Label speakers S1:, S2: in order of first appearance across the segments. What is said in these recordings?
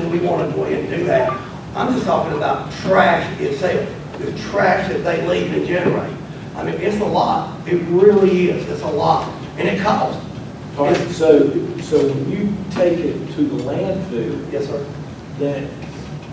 S1: want to go ahead and do that. I'm just talking about trash itself, the trash that they leave and generate. I mean, it's a lot, it really is, it's a lot, and it costs.
S2: All right, so, so when you take it to the landfill,
S1: Yes, sir.
S2: then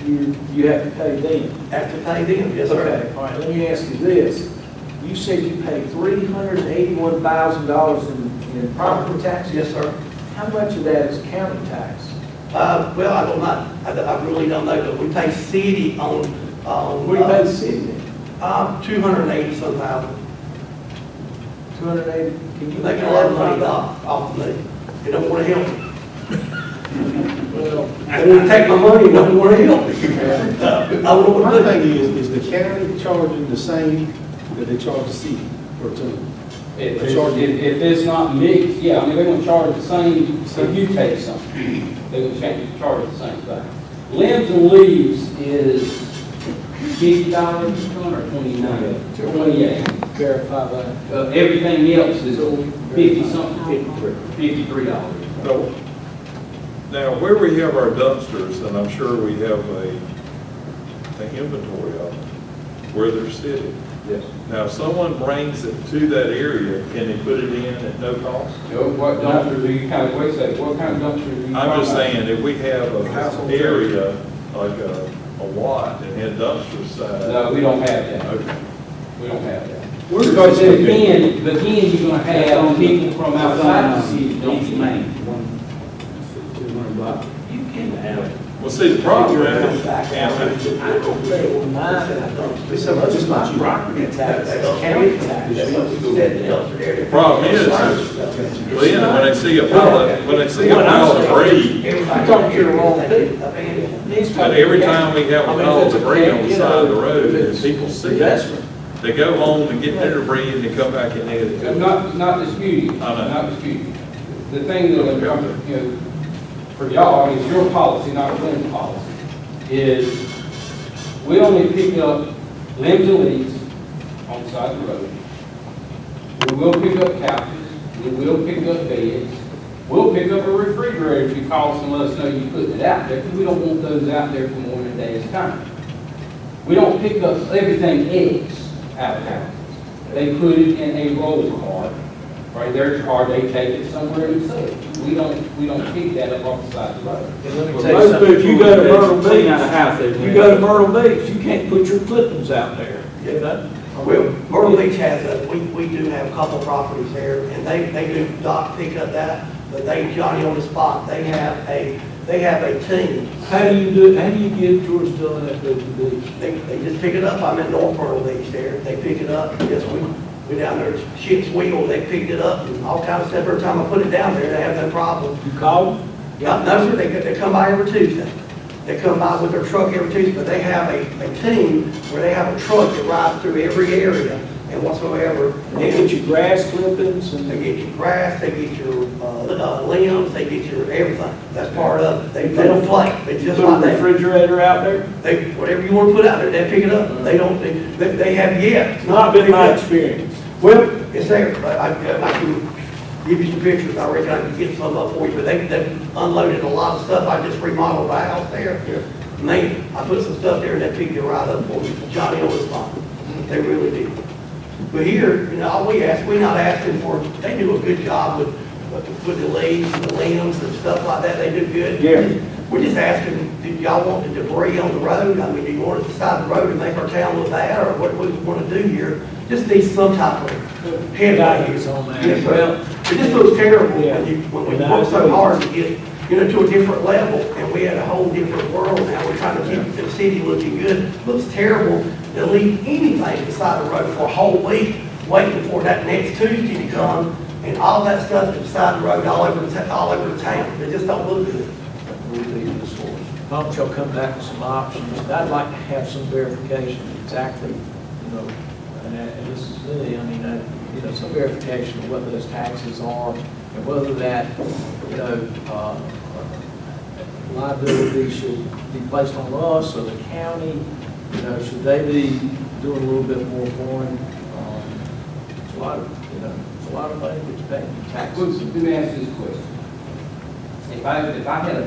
S2: you, you have to pay them.
S1: Have to pay them, yes, sir.
S2: Okay, all right, let me ask you this. You said you paid three hundred and eighty-one thousand dollars in, in property taxes?
S1: Yes, sir.
S2: How much of that is county tax?
S1: Uh, well, I don't know, I, I really don't know, but we pay city on, uh, on.
S2: What do you pay the city then?
S1: Uh, two hundred and eighty some thousand.
S2: Two hundred and eighty? Can you
S1: They
S2: make
S1: can let money
S2: that?
S1: off, off of me. They don't want to help me.
S2: Well,
S1: They want to take my money, and don't want to help me.
S2: yeah.
S1: I don't want
S3: My
S1: to do.
S3: thing is, is the county charging the same that they charge the city per ton?
S4: If, it's- if if it's not mixed, yeah, I mean, they're gonna charge the same, if you take something, they're gonna change, charge the same thing. Limbs and leaves is fifty dollars a ton or twenty-nine? Twenty-eight.
S2: Verify that.
S4: Uh, everything else is fifty-something, fifty-three dollars.
S5: So, Now, where we have our dumpsters, and I'm sure we have a, an inventory of them, where they're sitting.
S4: Yes.
S5: Now, if someone brings it to that area, can they put it in at no cost?
S4: So what dumpster do you kind of, wait a second, what kind of dumpster do you?
S5: I'm just
S4: talking
S5: saying, if we have a area, like a, a lot, and had dumpsters
S4: about?
S5: side.
S4: No, we don't have that,
S5: Okay.
S4: we don't have that.
S3: Where's
S4: But then again, but then you're gonna have people from outside the city, don't you mind?
S1: You can have it.
S5: Well, see, the problem is, and
S1: I don't think we're not.
S3: It's so much, it's not you.
S1: Property tax, that's county tax. That's what we said in the other area.
S5: Problem is- then, when I see a pile, when I see a pile of debris,
S1: Everybody-
S2: talking to the wrong people.
S1: Abandoned.
S2: Needs to-
S5: But every time we have
S2: I
S5: a
S2: mean,
S5: pile of
S2: if it's a
S5: debris on the
S2: can,
S5: side of the
S2: you know,
S5: road,
S2: if it's
S5: and people see it,
S2: Investment.
S5: they go home and get their debris and they come back and add it.
S4: I'm not, not disputing,
S5: I know.
S4: not disputing. The thing that, I'm- I'm, you know, for y'all is your policy, not Lynn's policy, is we only pick up limbs and leaves on the side of the road. We will pick up couches, we will pick up beds, we'll pick up a refrigerator if you call us and let us know you put it out there, because we don't want those out there for more than a day's time. We don't pick up everything eggs out of houses. They put it in a roll cart, right, their car, they take it somewhere and sell it. We don't, we don't pick that up off the side of the road.
S2: And let me
S6: Well,
S2: tell you
S6: most
S2: something, if you go to
S6: people
S2: Myrtle
S6: clean out a house,
S2: Beach,
S6: they-
S2: you go to Myrtle Beach, you can't put your clippings out there.
S1: Yeah. Well, Myrtle Beach has a, we, we do have a couple properties there, and they, they do dock pick up that, but they, Johnny on the spot, they have a, they have a team.
S2: How do you do, how do you get yours done at the beach?
S1: They, they just pick it up, I'm in North Myrtle Beach there, they pick it up, yes, we, we down there, ship's wheel, they picked it up, and all kinds of stuff, every time I put it down there, they have no problem.
S2: You call?
S1: Yeah, no, sir, they, they come by every Tuesday, they come by with their truck every Tuesday, but they have a, a team where they have a truck that rides through every area and whatsoever.
S2: They get your grass clippings
S1: They
S2: and.
S1: get your grass, they get your uh, uh, limbs, they get your everything. That's part of it. They, they don't play, they
S2: Put
S1: just
S2: a
S1: like that.
S2: refrigerator out there?
S1: They, whatever you want to put out there, they pick it up. They don't, they, they- they have yet.
S2: It's not been my experience.
S1: Well, it's there, but I, I can give you some pictures. I reckon I can get some up for you, but they, they unloaded a lot of stuff. I just remodeled the house there. Man, I put some stuff there and they picked it right up for me. Johnny on the spot. They really did. But here, you know, all we ask, we not asking for, they do a good job with, with with the leaves and the limbs and stuff like that, they do good.
S2: Yeah.
S1: We're just asking, do y'all want the debris on the road? I mean, do you want it to side the road and make our town look bad, or what we want to do here? Just need some type of headlight
S2: Values on that.
S1: Yes,
S2: Well-
S1: sir. It just looks terrible when you, when we
S2: Yeah.
S1: work so hard to get, you know, to a different level, and we had a whole different world now. We're trying to keep the city looking good. Looks terrible to leave anything beside the road for a whole week, waiting for that next Tuesday to come, and all that stuff beside the road, all over, the ta- all over the town. It just don't look good.
S2: Why don't y'all come back with some options? And I'd like to have some verification of exactly, you know, and that- and this is really, I mean, I, you know, some verification of what those taxes are and whether that, you know, uh, liability should be placed on us or the county, you know, should they be doing a little bit more for them? Um, It's a lot of, you know, it's a lot of money that's paid in taxes.
S4: Let me ask you this question. If I, if I had a